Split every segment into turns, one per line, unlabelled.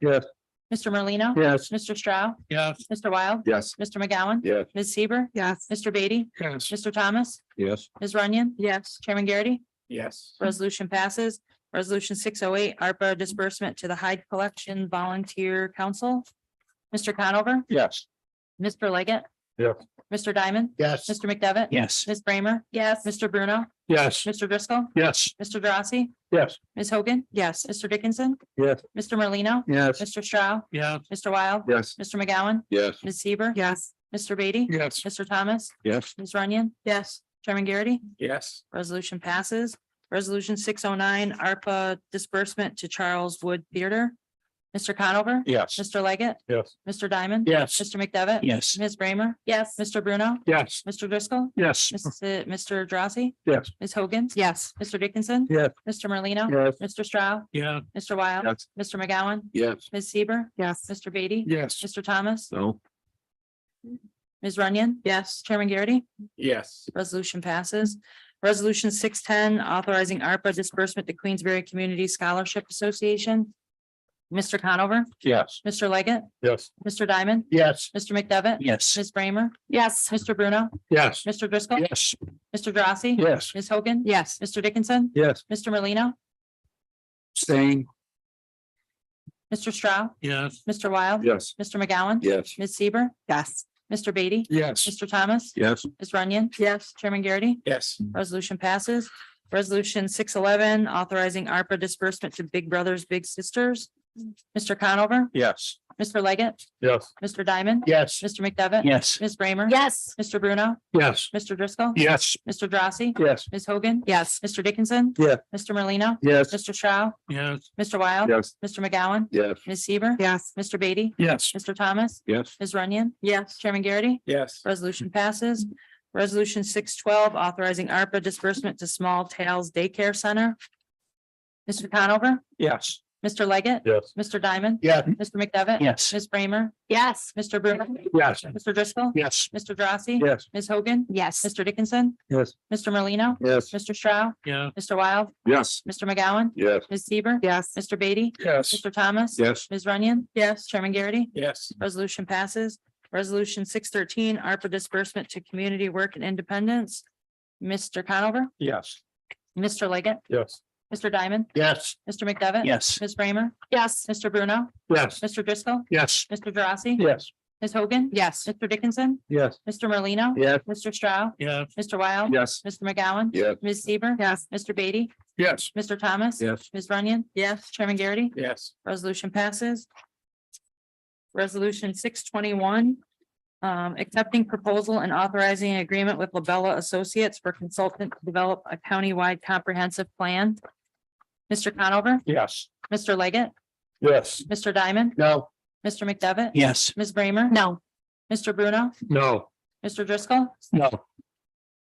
Yes.
Mr. Merlino?
Yes.
Mr. Stroud?
Yes.
Mr. Wild?
Yes.
Mr. McGowan?
Yes.
Ms. Seaver?
Yes.
Mr. Beatty?
Yes.
Mr. Thomas?
Yes.
Ms. Runyon?
Yes.
Chairman Garrity?
Yes.
Resolution passes. Resolution six oh eight, ARPA disbursement to the Hyde Collection Volunteer Council. Mr. Conover?
Yes.
Mr. Leggett?
Yes.
Mr. Diamond?
Yes.
Mr. McDevitt?
Yes.
Ms. Bramer?
Yes.
Mr. Bruno?
Yes.
Mr. Driscoll?
Yes.
Mr. Drossy?
Yes.
Ms. Hogan?
Yes.
Mr. Dickinson?
Yes.
Mr. Merlino?
Yes.
Mr. Stroud?
Yes.
Mr. Wild?
Yes.
Mr. McGowan?
Yes.
Ms. Seaver?
Yes.
Mr. Beatty?
Yes.
Mr. Thomas?
Yes.
Ms. Runyon?
Yes.
Chairman Garrity?
Yes.
Resolution passes. Resolution six oh nine, ARPA disbursement to Charles Wood Theater. Mr. Conover?
Yes.
Mr. Leggett?
Yes.
Mr. Diamond?
Yes.
Mr. McDevitt?
Yes.
Ms. Bramer?
Yes.
Mr. Bruno?
Yes.
Mr. Driscoll?
Yes.
Mrs. Mr. Drossy?
Yes.
Ms. Hogan?
Yes.
Mr. Dickinson?
Yes.
Mr. Merlino?
Yes.
Mr. Stroud?
Yeah.
Mr. Wild?
Yes.
Mr. McGowan?
Yes.
Ms. Seaver?
Yes.
Mr. Beatty?
Yes.
Mr. Thomas?
So.
Ms. Runyon?
Yes.
Chairman Garrity?
Yes.
Resolution passes. Resolution six ten, authorizing ARPA disbursement to Queensberry Community Scholarship Association. Mr. Conover,
Yes.
Mr. Leggett,
Yes.
Mr. Diamond,
Yes.
Mr. McDevitt,
Yes.
Ms. Bramer,
Yes.
Mr. Bruno,
Yes.
Mr. Driscoll,
Yes.
Mr. Drossy,
Yes.
Ms. Hogan,
Yes.
Mr. Dickinson,
Yes.
Mr. Merlino,
Staying.
Mr. Stroud,
Yes.
Mr. Wild,
Yes.
Mr. McGowan,
Yes.
Ms. Seaver,
Yes.
Mr. Beatty,
Yes.
Mr. Thomas,
Yes.
Ms. Runyon,
Yes.
Chairman Garrity.
Yes.
Resolution passes. Resolution six eleven, authorizing ARPA disbursement to Big Brothers Big Sisters. Mr. Conover,
Yes.
Mr. Leggett,
Yes.
Mr. Diamond.
Yes.
Mr. McDevitt.
Yes.
Ms. Bramer.
Yes.
Mr. Bruno,
Yes.
Mr. Driscoll.
Yes.
Mr. Drossy,
Yes.
Ms. Hogan.
Yes.
Mr. Dickinson.
Yeah.
Mr. Merlino,
Yes.
Mr. Stroud,
Yes.
Mr. Wild.
Yes.
Mr. McGowan,
Yes.
Ms. Seaver.
Yes.
Mr. Beatty,
Yes.
Mr. Thomas,
Yes.
Ms. Runyon,
Yes.
Chairman Garrity.
Yes.
Resolution passes. Resolution six twelve, authorizing ARPA disbursement to Small Towns Daycare Center. Mr. Conover,
Yes.
Mr. Leggett,
Yes.
Mr. Diamond,
Yes.
Mr. McDevitt.
Yes.
Ms. Bramer,
Yes.
Mr. Bruno,
Yes.
Mr. Driscoll,
Yes.
Mr. Drossy,
Yes.
Ms. Hogan,
Yes.
Mr. Dickinson,
Yes.
Mr. Merlino,
Yes.
Mr. Stroud,
Yeah.
Mr. Wild,
Yes.
Mr. McGowan,
Yes.
Ms. Seaver,
Yes.
Mr. Beatty,
Yes.
Mr. Thomas,
Yes.
Ms. Runyon,
Yes.
Chairman Garrity.
Yes.
Resolution passes. Resolution six thirteen, ARPA disbursement to community work and independence. Mr. Conover,
Yes.
Mr. Leggett,
Yes.
Mr. Diamond,
Yes.
Mr. McDevitt.
Yes.
Ms. Bramer,
Yes.
Mr. Bruno,
Yes.
Mr. Driscoll,
Yes.
Mr. Drossy,
Yes.
Ms. Hogan,
Yes.
Mr. Dickinson,
Yes.
Mr. Merlino,
Yes.
Mr. Stroud,
Yes.
Mr. Wild,
Yes.
Mr. McGowan,
Yes.
Ms. Seaver,
Yes.
Mr. Beatty,
Yes.
Mr. Thomas,
Yes.
Ms. Runyon,
Yes.
Chairman Garrity.
Yes.
Resolution passes. Resolution six twenty-one. Um, accepting proposal and authorizing an agreement with Labella Associates for consultant to develop a countywide comprehensive plan. Mr. Conover,
Yes.
Mr. Leggett,
Yes.
Mr. Diamond,
No.
Mr. McDevitt.
Yes.
Ms. Bramer.
No.
Mr. Bruno,
No.
Mr. Driscoll,
No.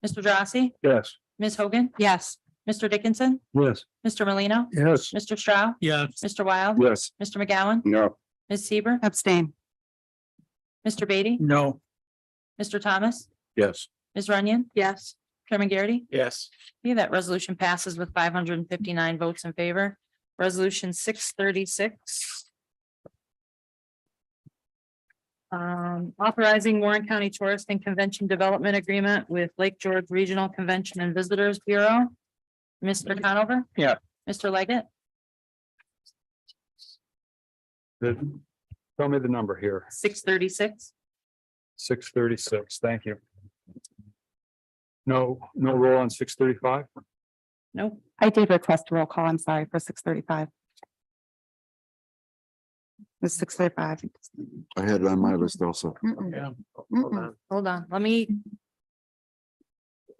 Mr. Drossy,
Yes.
Ms. Hogan,
Yes.
Mr. Dickinson,
Yes.
Mr. Merlino,
Yes.
Mr. Stroud,
Yes.
Mr. Wild,
Yes.
Mr. McGowan,
No.
Ms. Seaver,
Abstain.
Mr. Beatty,
No.
Mr. Thomas,
Yes.
Ms. Runyon,
Yes.
Chairman Garrity.
Yes.
Okay, that resolution passes with five hundred and fifty-nine votes in favor. Resolution six thirty-six. Um, authorizing Warren County Tourist and Convention Development Agreement with Lake George Regional Convention and Visitors Bureau. Mr. Conover?
Yeah.
Mr. Leggett?
The- tell me the number here.
Six thirty-six.
Six thirty-six. Thank you. No, no roll on six thirty-five?
Nope.
I did request a roll call. I'm sorry for six thirty-five. It's six thirty-five.
I had it on my list also.
Yeah.
hold on.
Hold on, let me,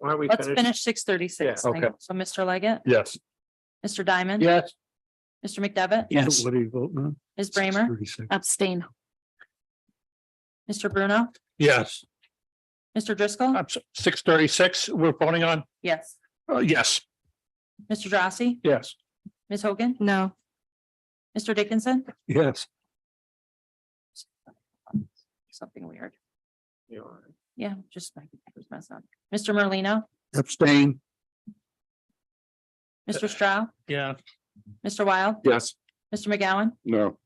Are we
let's finish six thirty-six.
Yeah, okay.
So Mr. Leggett,
Yes.
Mr. Diamond.
Yes.
Mr. McDevitt.
Yes. What do you vote on?
Ms. Bramer,
Abstain.
Mr. Bruno,
Yes.
Mr. Driscoll.
Six thirty-six, we're voting on?
Yes.
Uh, yes.
Mr. Drossy,
Yes.
Ms. Hogan,
No.
Mr. Dickinson,
Yes.
something weird. Yeah, just my computer's messing up. Mr. Merlino,
Abstain.
Mr. Stroud,
Yeah.
Mr. Wild,
Yes.
Mr. McGowan,
No.